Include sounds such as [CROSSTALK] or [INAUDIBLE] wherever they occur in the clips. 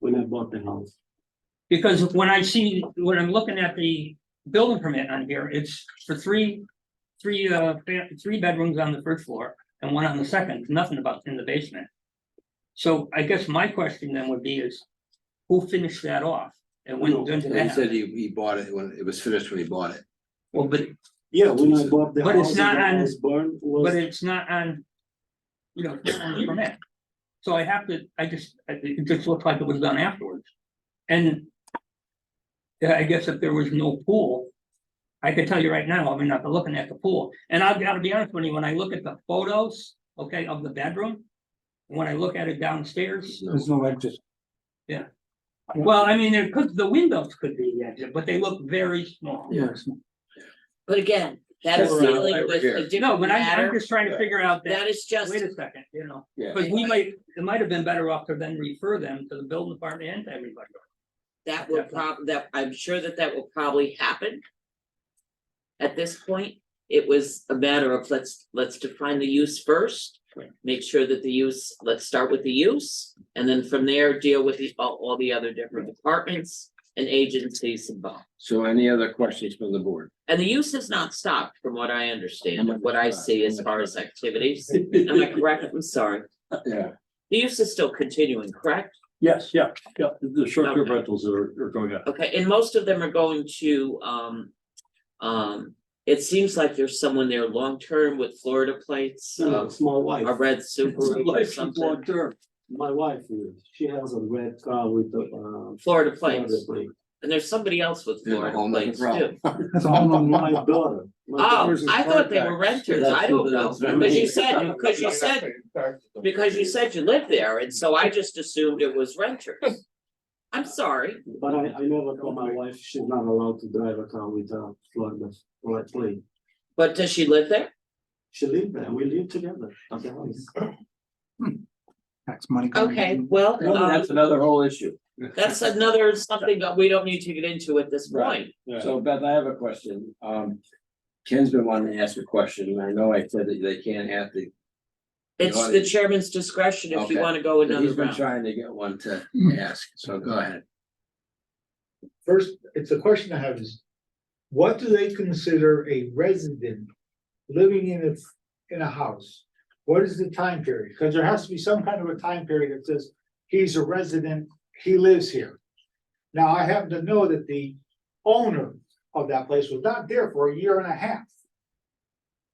when I bought the house. Because when I see, when I'm looking at the building permit on here, it's for three, three, uh, fa- three bedrooms on the first floor and one on the second, nothing about in the basement. So I guess my question then would be is, who finished that off? And went into He said that? he, he bought it when, it was finished when he bought it. Well, but, Yeah, when I bought the But it's house, not when on- I was burned but was, it's not on, you know, it's not on the permit. So I have to, I just, I- it just looked like it was done afterwards. And yeah, I guess if there was no pool, I can tell you right now, I mean, after looking at the pool, and I've gotta be honest with you, when I look at the photos, okay, of the bedroom. When I look at it downstairs, No. There's no exit. well, I mean, there could, the windows could be, the exit, but they look very small. Yes. But again, that is Sure. dealing with Over a here. No, different but I'm, I'm matter. just trying to figure out that, That is just, wait a second, you know. Yeah. But we might, it might have been better off to then refer them to the building department and to everybody. that will prob, that, I'm sure that that will probably happen. At this point, it was a matter of let's, let's define the use first. Right. Make sure that the use, let's start with the use, and then from there, deal with the, all, all the other different departments and agencies involved. So any other questions from the board? And the use has not stopped, from what I understand, and what I see as far [LAUGHS] as activities. Am I yeah, correct? I'm sorry. Yeah. The use is still continuing, correct? Yes, yeah, yeah, the short-term Okay. rentals are, are going up. Okay, and most of them are going to, um, um, it seems like there's someone there long-term with Florida plates, no, uh, it's my wife. a red Subaru or Life is something. long term. My wife, lives. she has a red car with the, uh. Florida Florida plates, plate. and there's somebody else with Yeah, Florida home plates is wrong. too. That's a whole Oh, nother- my daughter. My Ah. daughter. Oh, Where's his I thought they car were renters, That's I don't what- know, that's what I because you mean. said, because you said, because you said you lived there, and so I just assumed it was renters. I'm sorry, But I, I never told my wife she's not allowed to drive a car with a Florida flag plate. but does she live there? She lived there, we lived together at the house. Tax money. coming Okay, in. well, No, um, That's another whole issue. that's another something that we don't need to get into at this Right. point. So Beth, I have a question. Um, Ken's been wanting to ask a question, and I know I said that they can't have the, It's wanna- the chairman's discretion if you Okay. wanna go another he's been round. trying to get one to ask, so go ahead. First, it's a question I have is, what do they consider a resident living in a, in a house? What is the time period? Because there has to be some kind of a time period that says, he's a resident, he lives here. Now, I happen to know that the owner of that place was not there for a year and a half.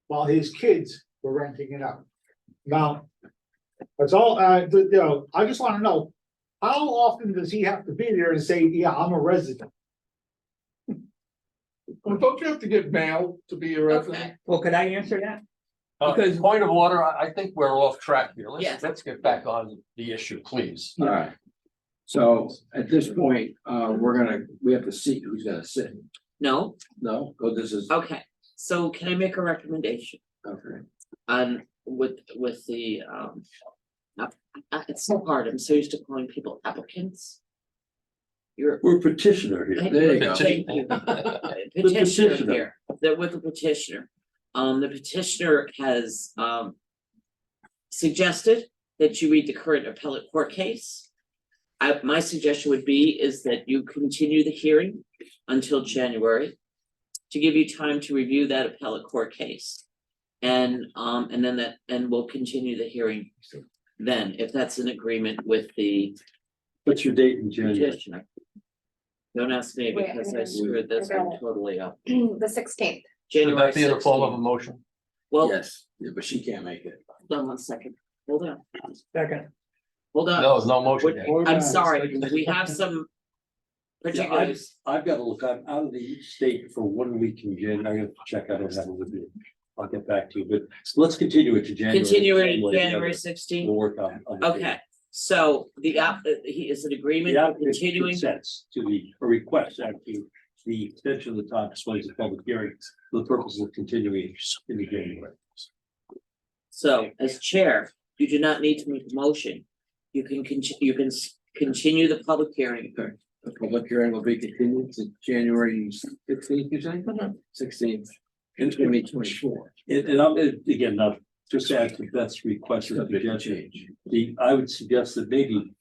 While his kids were renting it out. Now, that's all, uh, you know, I just wanna know, how often does he have to be there and say, yeah, I'm a resident? Well, don't you have to get mail to be a Okay, resident? Well, could I answer that? Uh, Because- Point of order, I, I think we're off track here. Yes. Let's, let's get back on the issue, please. All right. So at this point, uh, we're gonna, we have to see who's gonna sit. no, No, oh, this is, okay, so can I make a recommendation okay. on with with the um. app- uh, it's so hard, I'm so used to calling people applicants. You're. We're petitioner here. There you go. Thank [LAUGHS] you. Petitioner here, that with the petitioner, um, the petitioner has um. Suggested that you read the current appellate court case. I, my suggestion would be is that you continue the hearing until January. To give you time to review that appellate court case. And um, and then that, and we'll continue the hearing then, if that's in agreement with the What's your date in January? petitioner. Don't ask me Wait, because I I screwed this got one it. totally up. the sixteenth. Should January that be in the form of a sixteenth. motion? Well, Yes, yeah, but she can't make it. hold one second, hold on, Second. hold on. No, no motion. yet. I'm sorry, we have some particulars. I've got to look, I'm out of the state for one week in January. I gotta check out that with you. I'll get back to you, but let's continue it to January. Continue it January, January yeah, sixteenth. We'll work on. on the date. Okay, so the app, uh, he is in agreement The of applicant continuing, consents to the, or requests actually, the extension of the time displays of public hearings for the purposes of continuing in the January. so as chair, you do not need to make a motion. You can continue, you can s- continue the public hearing. The public hearing will be continued to January sixteenth, you say? Sixteenth, in twenty twenty-four. And, and I'm, and again, not just to add to Beth's request, or It's a big suggestion, change. the, I would suggest that maybe